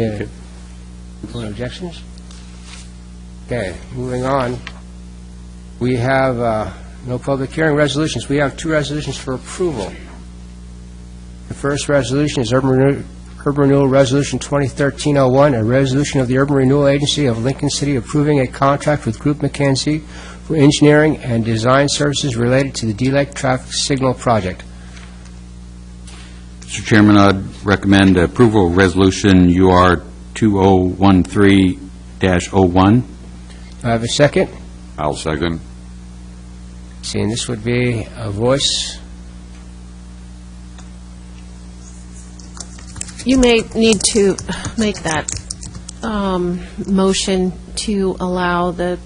Any further objections? Okay, moving on. We have uh, no public hearing resolutions. We have two resolutions for approval. The first resolution is Urban Renew- Urban Renewal Resolution 2013-01, a resolution of the Urban Renewal Agency of Lincoln City approving a contract with Group McKenzie for engineering and design services related to the D-Lake Traffic Signal Project. Mr. Chairman, I'd recommend approval of Resolution UR 2013-01. Do I have a second? I'll second. Seeing this would be a voice. You may need to make that um, motion to allow the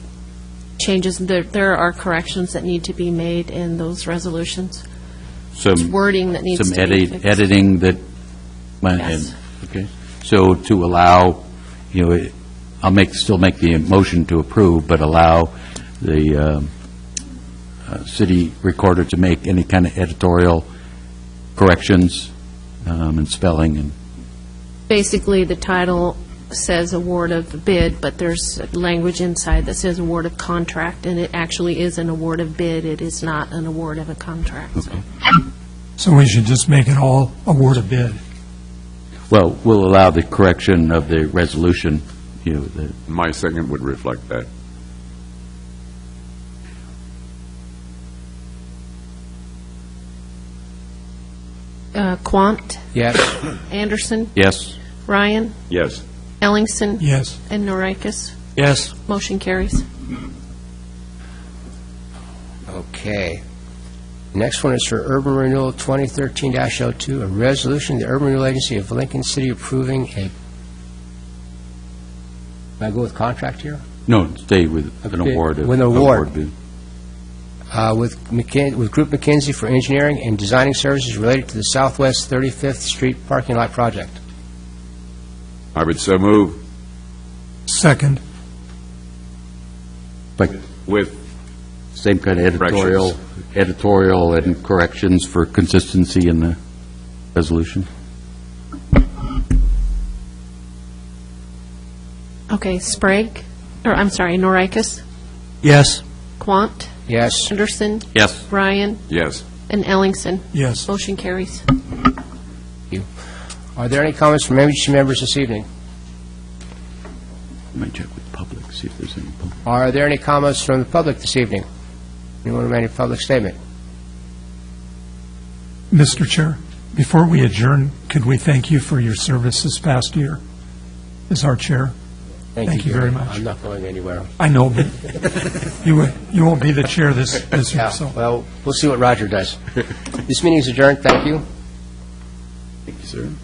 changes, there there are corrections that need to be made in those resolutions, Some wording that needs some to be edit- fixed. editing that went in. Yes. Okay. So to allow, you know, I'll make, still make the motion to approve, but allow the um, uh, city recorder to make any kind of editorial corrections um, and spelling and Basically, the title says award of bid, but there's language inside that says award of contract, and it actually is an award of bid, it is not an award of a contract. so. So we should just make it all award a bid. Well, we'll allow the correction of the resolution, you know, the- My second would reflect that. Uh, Quant, Yes? Anderson, yes? Ryan, Yes. Ellingson, Yes. and Norikis. Yes. Motion carries. Okay. Next one is for Urban Renewal 2013-02, a resolution, of the Urban Renewal Agency of Lincoln City approving a, Can I go with contract here? No, stay with an Okay, award. of- with an award. bid. Uh, With McKin- with Group McKinsey for engineering and designing services related to the Southwest 35th Street parking lot project. I would so move Second, But with, same kind of editorial, editorial and corrections for consistency in the resolution. Okay, Sprague, or I'm sorry, Norikis, Yes. Quant, Yes? Anderson, Yes. Ryan, yes. and Ellingson. yes. Motion carries. Are there any comments from MHC members this evening? Let me check with public, see if there's any public. Are there any comments from the public this evening? Anyone with any public statement? Mr. Chair, before we adjourn, could we thank you for your service this past year as our chair? Thank you Gary. very much. I'm not going anywhere. I know, but you won't- you won't be the chair this this year, Yeah, so. well, we'll see what Roger does. This meeting is adjourned, thank you. Thank you, sir.